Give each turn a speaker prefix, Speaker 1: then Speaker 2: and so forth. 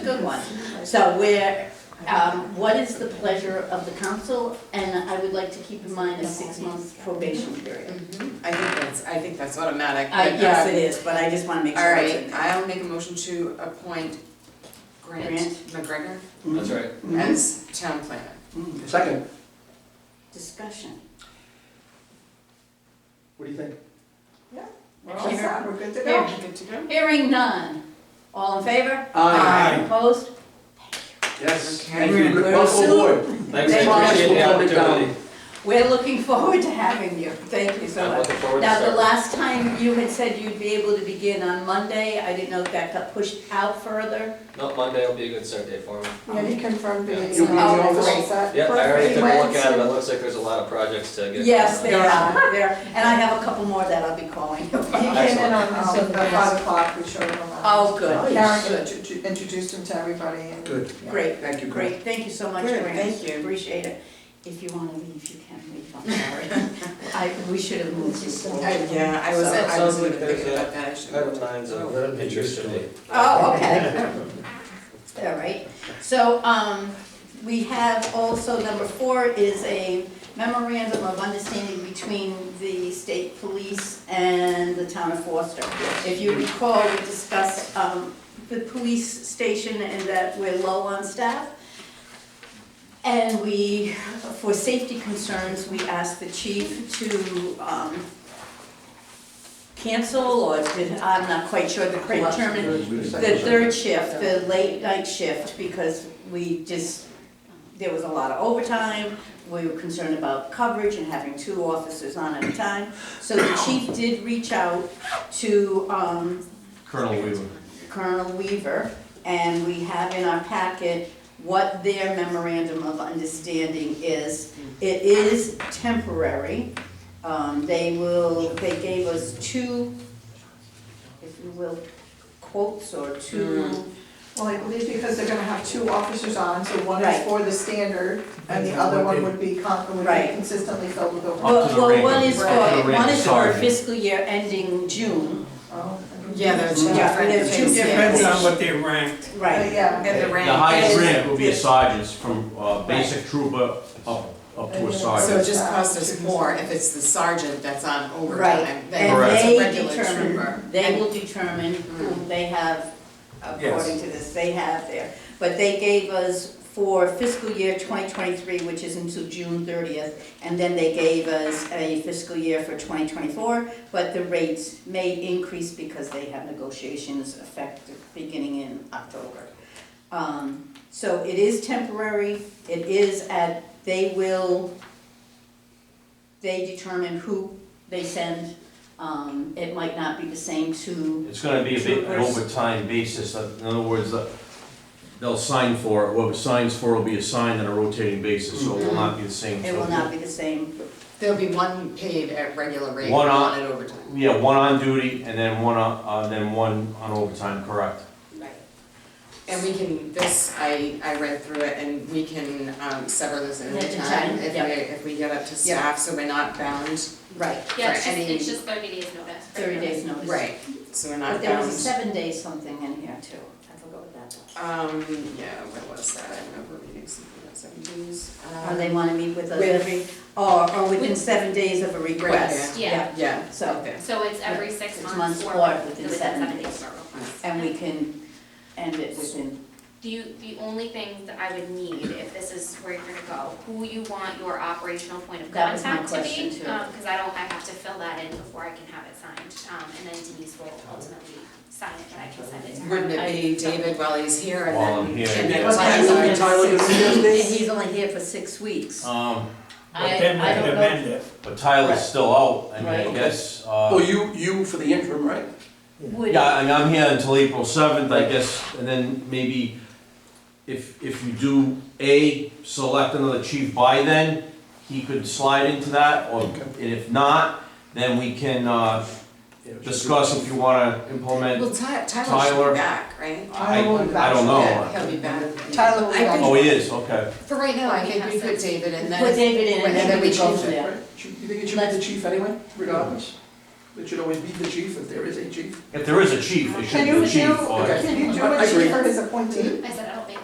Speaker 1: Good one. So we're, um, what is the pleasure of the council? And I would like to keep in mind a six-month probation period.
Speaker 2: Mm-hmm. I think that's, I think that's automatic.
Speaker 1: I,
Speaker 2: but
Speaker 1: yes,
Speaker 2: that's-
Speaker 1: it is, but I just wanna make
Speaker 2: Uh, All
Speaker 1: sure it's in
Speaker 2: right,
Speaker 1: there.
Speaker 2: I'll make a motion to appoint Grant
Speaker 1: Grant.
Speaker 2: McGregor
Speaker 3: That's right.
Speaker 1: Mhm.
Speaker 2: as town planner.
Speaker 1: Mhm.
Speaker 3: Second,
Speaker 1: Discussion.
Speaker 3: what do you think?
Speaker 2: We're all set.
Speaker 1: We're good to
Speaker 2: Yeah, good to go.
Speaker 1: Hearing none. All in favor? Opposed?
Speaker 3: Yes,
Speaker 2: Okay.
Speaker 3: thank you, good,
Speaker 1: Very
Speaker 3: welcome
Speaker 1: soon.
Speaker 3: aboard.
Speaker 4: Thanks,
Speaker 1: Thank you.
Speaker 4: I appreciate the
Speaker 3: Welcome down.
Speaker 4: opportunity.
Speaker 1: We're looking forward to having you. Thank you so
Speaker 4: I'm
Speaker 1: much.
Speaker 4: looking forward to
Speaker 1: Now, the
Speaker 4: starting.
Speaker 1: last time you had said you'd be able to begin on Monday, I didn't know if that got pushed out further.
Speaker 4: No, Monday will be a good start day for me.
Speaker 5: Yeah, he confirmed
Speaker 4: Yeah.
Speaker 5: it.
Speaker 3: You'll be in the
Speaker 2: Oh,
Speaker 3: office?
Speaker 4: Yep, I already took a look at it, it
Speaker 5: Wednesday.
Speaker 4: looks like there's a lot of projects to get.
Speaker 1: Yes,
Speaker 4: going
Speaker 1: there
Speaker 4: on.
Speaker 1: are, there, and I have a couple more that I'll be calling you.
Speaker 5: He came in
Speaker 4: Excellent.
Speaker 5: on, um, about five o'clock, we showed him around.
Speaker 1: Oh, good.
Speaker 5: Karen
Speaker 1: Good.
Speaker 5: intro- introduced him to everybody and.
Speaker 3: Good,
Speaker 5: Yeah.
Speaker 1: Great,
Speaker 3: thank you, Greg.
Speaker 1: great, thank you so much,
Speaker 2: Good,
Speaker 1: Grant.
Speaker 2: thank you.
Speaker 1: Appreciate it. If you wanna leave, you can leave, I'm sorry. I, we should have moved this forward.
Speaker 2: I- Yeah, I wasn't, I
Speaker 4: Sounds
Speaker 2: wasn't
Speaker 4: like
Speaker 2: even thinking
Speaker 4: there's a-
Speaker 2: about that, I should.
Speaker 4: Item nine's of interest to me.
Speaker 1: Oh, okay. All right, so, um, we have also, number four is a memorandum of understanding between the state police and the town of Forster. If you recall, we discussed, um, the police station and that we're low on staff. And we, for safety concerns, we asked the chief to, um, cancel, or did, I'm not quite sure the correct term, the third shift, the late night shift, because we just, there was a lot of overtime. We were concerned about coverage and having two officers on at a time. So the chief did reach out to um,
Speaker 6: Colonel Weaver.
Speaker 1: Colonel Weaver, and we have in our packet what their memorandum of understanding is. It is temporary. Um, They will, they gave us two, if you will, quotes or two
Speaker 5: Well, I believe because they're gonna have two officers on, so one
Speaker 1: Right.
Speaker 5: is for the standard and the
Speaker 6: And
Speaker 5: other
Speaker 6: one
Speaker 5: one
Speaker 6: would
Speaker 5: would be con, would be
Speaker 1: Right.
Speaker 5: consistently filled with over.
Speaker 6: Up to
Speaker 1: Well,
Speaker 6: the
Speaker 1: well,
Speaker 6: rank
Speaker 1: one
Speaker 6: of-
Speaker 1: is
Speaker 6: up to
Speaker 1: for,
Speaker 6: the rank
Speaker 1: one
Speaker 6: of
Speaker 1: is for
Speaker 6: sergeant.
Speaker 1: fiscal year ending June.
Speaker 5: Oh, okay.
Speaker 2: Yeah, there are two
Speaker 1: Yeah,
Speaker 2: different
Speaker 1: there's two
Speaker 2: things.
Speaker 1: different-
Speaker 2: yeah.
Speaker 6: on
Speaker 7: what they ranked.
Speaker 5: But yeah,
Speaker 2: And the
Speaker 6: The
Speaker 2: rank.
Speaker 6: highest
Speaker 1: is-
Speaker 6: rank will be a
Speaker 1: is-
Speaker 6: sergeant, from uh, basic trooper up, up to a
Speaker 2: So it
Speaker 6: sergeant.
Speaker 2: just costs us more if it's the sergeant that's on overtime
Speaker 1: Right,
Speaker 2: than
Speaker 1: and
Speaker 2: if it's
Speaker 1: they
Speaker 2: a regular trooper.
Speaker 1: determine, they will determine whom they have, according to this, they have there. But they gave us for fiscal year twenty twenty-three, which is until June thirtieth, and then they gave us a fiscal year for twenty twenty-four, but the rates may increase because they have negotiations effective beginning in October. Um, so it is temporary, it is at, they will, they determine who they send. Um, it might not be the same to,
Speaker 6: It's gonna be a bit an
Speaker 1: Troopers.
Speaker 6: overtime basis, uh, in other words, uh, they'll sign for, it. whoever signs for it will be assigned on a rotating basis, so it will not be the same.
Speaker 1: it will not be the same.
Speaker 2: There'll be one paid at regular rate,
Speaker 6: One
Speaker 2: one
Speaker 6: on-
Speaker 2: at overtime.
Speaker 6: Yeah, one on duty and then one, on- uh, then one on overtime, correct.
Speaker 2: Right. And we can, this, I, I read through it and we can um, sever this at
Speaker 1: At
Speaker 2: any
Speaker 1: the
Speaker 2: time
Speaker 1: time,
Speaker 2: if we,
Speaker 1: yeah.
Speaker 2: if we get up to staff, so we're not bound.
Speaker 1: Right.
Speaker 2: for
Speaker 8: Yeah, it's just,
Speaker 2: any-
Speaker 8: it's just thirty days notice.
Speaker 1: Thirty days notice.
Speaker 2: Right, so we're
Speaker 1: But
Speaker 2: not
Speaker 1: there was a
Speaker 2: bound.
Speaker 1: seven day something in here too. I forgot what that was.
Speaker 2: Um, yeah, what was that? I remember reading something about Um, seven dues.
Speaker 1: Or they wanna meet with us
Speaker 2: With-
Speaker 1: every, or, or within seven days of a request.
Speaker 8: yeah.
Speaker 2: Yeah,
Speaker 1: So-
Speaker 2: so there.
Speaker 8: So it's every six
Speaker 1: Six
Speaker 8: months or within seven days.
Speaker 1: And we can end it within,
Speaker 8: Do you, the only thing that I would need, if this is where you're gonna go, who you want your operational point of
Speaker 1: That was my
Speaker 8: contact to be?
Speaker 1: question, too.
Speaker 8: um, Cause I don't, I have to fill that in before I can have it signed, um, and then Denise will ultimately sign it, but I can send it to her.
Speaker 2: Wouldn't it be David while he's here and
Speaker 6: While I'm
Speaker 2: then?
Speaker 6: here,
Speaker 2: and
Speaker 6: yeah.
Speaker 2: then
Speaker 3: What
Speaker 2: Tyler?
Speaker 3: time is it? Tyler, you do this?
Speaker 1: he's only here for six weeks.
Speaker 6: Um,
Speaker 1: I-
Speaker 7: But then
Speaker 1: I
Speaker 7: we
Speaker 1: don't
Speaker 7: could
Speaker 1: know.
Speaker 7: amend it.
Speaker 6: but Tyler's still out, I
Speaker 1: Right.
Speaker 6: mean, I
Speaker 1: Okay.
Speaker 6: guess,
Speaker 3: Well,
Speaker 6: uh,
Speaker 3: Oh, you, you for the interim, right?
Speaker 1: Would,
Speaker 6: yeah, and I'm here until April seventh, I guess, and then maybe if, if you do, A, select another chief by then, he could slide into that, or, and if not, then we can, uh, discuss if you wanna implement.
Speaker 2: Well, Ty- Tyler should
Speaker 6: Tyler.
Speaker 2: be back, right?
Speaker 6: I,
Speaker 5: Tyler will be
Speaker 6: I don't
Speaker 2: Yeah,
Speaker 6: know.
Speaker 2: he'll be back.
Speaker 5: Tyler will be
Speaker 2: I
Speaker 5: back.
Speaker 2: think-
Speaker 6: Oh, he is, okay.
Speaker 2: For right now, I think we
Speaker 8: Yes.
Speaker 2: put David and
Speaker 1: put
Speaker 2: then,
Speaker 1: David in and then we go from there.
Speaker 3: Right? Should- You think it should be the chief anyway, regardless? It should always be the chief if there is a chief.
Speaker 6: If there is a chief, it should
Speaker 5: Can
Speaker 6: be the
Speaker 5: you do,
Speaker 6: chief. or-
Speaker 5: can you do
Speaker 3: I
Speaker 5: it
Speaker 3: agree.
Speaker 5: for his appointee?
Speaker 8: I said, I don't think